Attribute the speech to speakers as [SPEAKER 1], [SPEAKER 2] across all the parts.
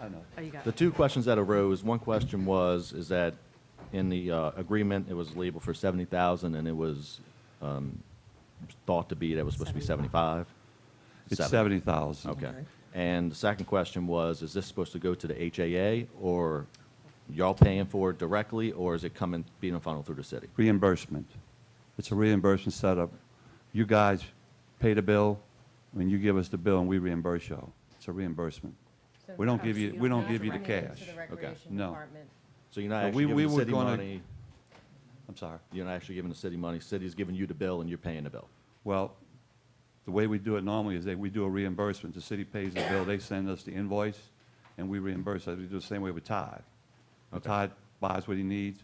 [SPEAKER 1] I know.
[SPEAKER 2] Oh, you got
[SPEAKER 3] The
[SPEAKER 2] it.
[SPEAKER 3] two questions that arose, one question was, is that in the uh, agreement, it was labeled for 70,000, and it was um, thought to be that it was supposed to be 75?
[SPEAKER 1] It's 70,000.
[SPEAKER 3] Okay. And the second question was, is this supposed to go to the HAA, or y'all paying for it directly, or is it coming, being funneled through the city?
[SPEAKER 1] Reimbursement. It's a reimbursement setup. You guys pay the bill, I mean, you give us the bill and we reimburse y'all. It's a reimbursement. We don't give you, we don't give you the cash. No.
[SPEAKER 3] So you're not
[SPEAKER 1] Uh, we-
[SPEAKER 3] actually
[SPEAKER 1] we
[SPEAKER 3] giving the
[SPEAKER 1] were
[SPEAKER 3] city
[SPEAKER 1] gonna-
[SPEAKER 3] money,
[SPEAKER 1] I'm sorry.
[SPEAKER 3] you're not actually giving the city money, city's giving you the bill, and you're paying the bill.
[SPEAKER 1] Well, the way we do it normally is that we do a reimbursement. The city pays the bill, they send us the invoice, and we reimburse it. We do the same way with Todd.
[SPEAKER 3] Okay.
[SPEAKER 1] Todd buys what he needs,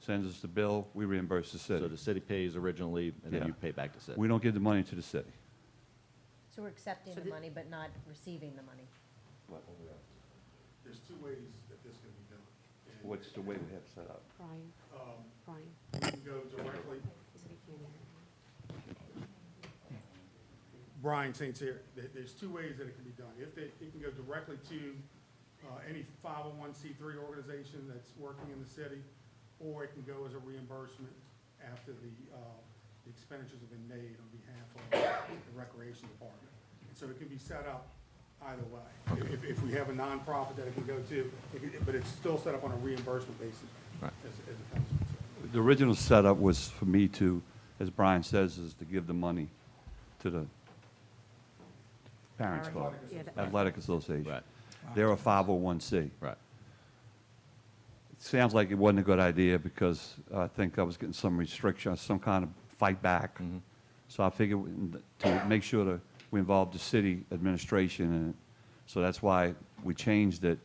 [SPEAKER 1] sends us the bill, we reimburse the
[SPEAKER 3] So the
[SPEAKER 1] city.
[SPEAKER 3] city pays originally, and then
[SPEAKER 1] Yeah.
[SPEAKER 3] you pay back the city.
[SPEAKER 1] We don't give the money to the city.
[SPEAKER 4] So we're accepting
[SPEAKER 2] So
[SPEAKER 4] the
[SPEAKER 2] thi-
[SPEAKER 4] money, but not receiving the money.
[SPEAKER 5] There's two ways that this can be done. And
[SPEAKER 1] What's the way we have set up?
[SPEAKER 6] Brian, Brian,
[SPEAKER 5] We can go directly,
[SPEAKER 6] is it he can't hear?
[SPEAKER 5] Brian St. Cyr, there, there's two ways that it can be done. If they, it can go directly to, uh, any five oh one C three organization that's working in the city, or it can go as a reimbursement after the, uh, the expenditures have been made on behalf of the recreation department. And so it can be set up either way. If, if we have a nonprofit that it can go to, it can- but it's still set up on a reimbursement basis.
[SPEAKER 3] Right.
[SPEAKER 5] As, as it comes.
[SPEAKER 1] The original setup was for me to, as Brian says, is to give the money to the Parents Club,
[SPEAKER 2] Yeah, that-
[SPEAKER 1] Athletic Association.
[SPEAKER 3] Right,
[SPEAKER 1] They're a 501c.
[SPEAKER 3] right.
[SPEAKER 1] It sounds like it wasn't a good idea because I think I was getting some restriction, some kind of fight back. So I figured we- to make sure that we involved the city administration in it. So that's why we changed it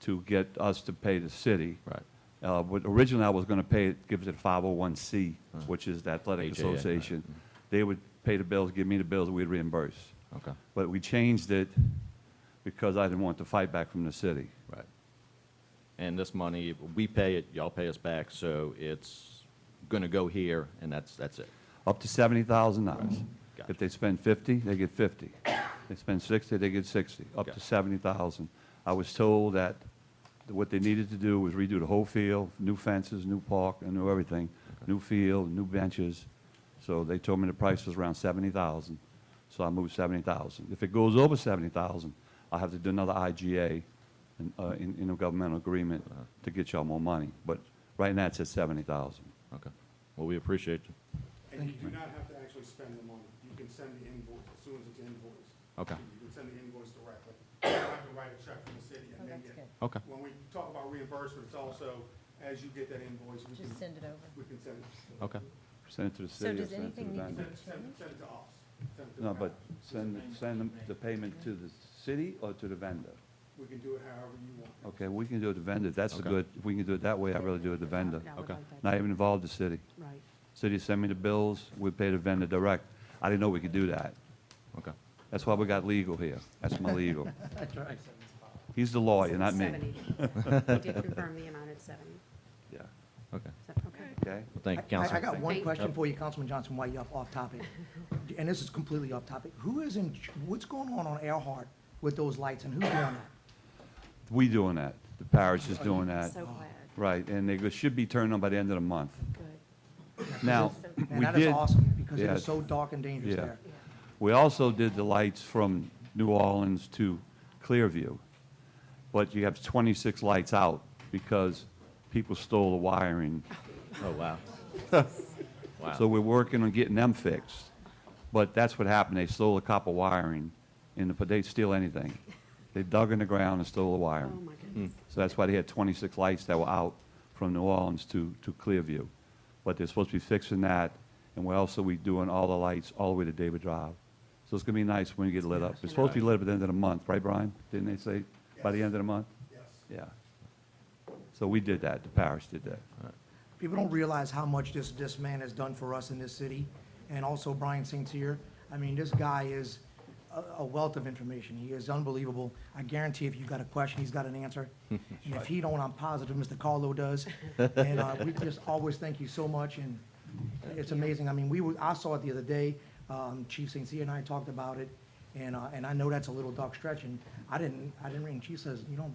[SPEAKER 1] to get us to pay the city.
[SPEAKER 3] Right.
[SPEAKER 1] Uh, but originally I was gonna pay it, give it to the five oh one C, which is the athletic
[SPEAKER 3] AJA, right.
[SPEAKER 1] association. They would pay the bills, give me the bills, we'd reimburse.
[SPEAKER 3] Okay,
[SPEAKER 1] But we changed it because I didn't want the fight back from the city.
[SPEAKER 3] right. And this money, we pay it, y'all pay us back, so it's gonna go here, and that's, that's it.
[SPEAKER 1] up to seventy thousand dollars.
[SPEAKER 3] Gotcha.
[SPEAKER 1] If they spend fifty, they get fifty. They spend sixty, they get sixty, up to
[SPEAKER 3] Gotcha.
[SPEAKER 1] seventy thousand. I was told that what they needed to do was redo the whole field, new fences, new park, and new everything, new field, new benches. So they told me the price was around seventy thousand, so I moved seventy thousand. If it goes over seventy thousand, I'll have to do another IGA, in- uh, in- intergovernmental agreement,
[SPEAKER 3] Uh-huh.
[SPEAKER 1] to get y'all more money. But right now, it's at seventy thousand.
[SPEAKER 3] Okay. Well, we appreciate you.
[SPEAKER 5] And you do not have to actually spend the money. You can send the invoice as soon as it's invoiced.
[SPEAKER 3] Okay.
[SPEAKER 5] You can send the invoice directly. You don't have to write a check from the city and
[SPEAKER 4] Oh,
[SPEAKER 5] then
[SPEAKER 4] that's
[SPEAKER 5] get.
[SPEAKER 4] good.
[SPEAKER 3] Okay.
[SPEAKER 5] When we talk about reimbursement, it's also, as you get that invoice, we can,
[SPEAKER 4] Just send it over.
[SPEAKER 5] we can send it,
[SPEAKER 3] Okay.
[SPEAKER 1] Send it to the
[SPEAKER 4] So
[SPEAKER 1] city or
[SPEAKER 4] does
[SPEAKER 1] send it to the
[SPEAKER 4] anything need to
[SPEAKER 1] vendor.
[SPEAKER 5] send, send, send it to us. Send it to the
[SPEAKER 1] No, but
[SPEAKER 5] vendor.
[SPEAKER 1] send, send them the payment to the city or to the vendor?
[SPEAKER 5] We can do it however you want.
[SPEAKER 1] Okay, we can do it to vendor, that's a
[SPEAKER 3] Okay.
[SPEAKER 1] good, if we can do it that way, I'd rather do it to
[SPEAKER 6] Oh,
[SPEAKER 1] vendor.
[SPEAKER 2] Yeah, I would
[SPEAKER 3] Okay.
[SPEAKER 2] like that.
[SPEAKER 1] Not even involve the city.
[SPEAKER 2] Right.
[SPEAKER 1] City send me the bills, we pay the vendor direct. I didn't know we could do that.
[SPEAKER 3] Okay.
[SPEAKER 1] That's why we got legal here. That's my legal. He's the lawyer, not me.
[SPEAKER 6] 70. We did confirm the amount at 70.
[SPEAKER 1] Yeah,
[SPEAKER 3] Okay.
[SPEAKER 6] Is that okay?
[SPEAKER 1] okay?
[SPEAKER 3] Well, thank you,
[SPEAKER 7] I- I- I
[SPEAKER 3] Council.
[SPEAKER 7] got one
[SPEAKER 6] Thank-
[SPEAKER 7] question for you, Councilman Johnson, while you're up- off topic. And this is completely off topic. Who is in, ch- what's going on on Earhart with those lights and who's doing that?
[SPEAKER 1] We doing that, the parish is doing
[SPEAKER 6] I'm
[SPEAKER 1] that.
[SPEAKER 6] so glad.
[SPEAKER 1] Right, and they should be turned on by the end of the month.
[SPEAKER 6] Good.
[SPEAKER 1] Now, we did.
[SPEAKER 7] And that is awesome because it
[SPEAKER 1] Yeah.
[SPEAKER 7] is so dark and dangerous
[SPEAKER 1] Yeah.
[SPEAKER 7] there.
[SPEAKER 1] We also did the lights from New Orleans to Clearview, but you have 26 lights out because people stole the wiring.
[SPEAKER 3] Oh, wow.
[SPEAKER 1] So
[SPEAKER 3] Wow.
[SPEAKER 1] we're working on getting them fixed. But that's what happened, they stole a copper wiring, and the- but they steal anything. They dug in the ground and stole the
[SPEAKER 6] Oh,
[SPEAKER 1] wiring.
[SPEAKER 6] my
[SPEAKER 3] Mm.
[SPEAKER 6] goodness.
[SPEAKER 1] So that's why they had 26 lights that were out from New Orleans to, to Clearview. But they're supposed to be fixing that, and we're also, we doing all the lights all the way to David Drive. So it's gonna be nice when you get lit up. It's supposed to be lit up at the end of the month, right, Brian? Didn't they say by the end of the month?
[SPEAKER 5] Yes.
[SPEAKER 1] Yeah. So we did that, the parish did that.
[SPEAKER 7] People don't realize how much this, this man has done for us in this city, and also Brian St. Cyr. I mean, this guy is a- a wealth of information. He is unbelievable. I guarantee if you've got a question, he's got an answer. And if he don't, I'm positive Mr. Carlo does. And uh, we just always thank you so much, and it's amazing. I mean, we were, I saw it the other day. Um, Chief St. Cyr and I talked about it, and, uh, and I know that's a little dark stretch, and I didn't, I didn't ring. Chief says, you don't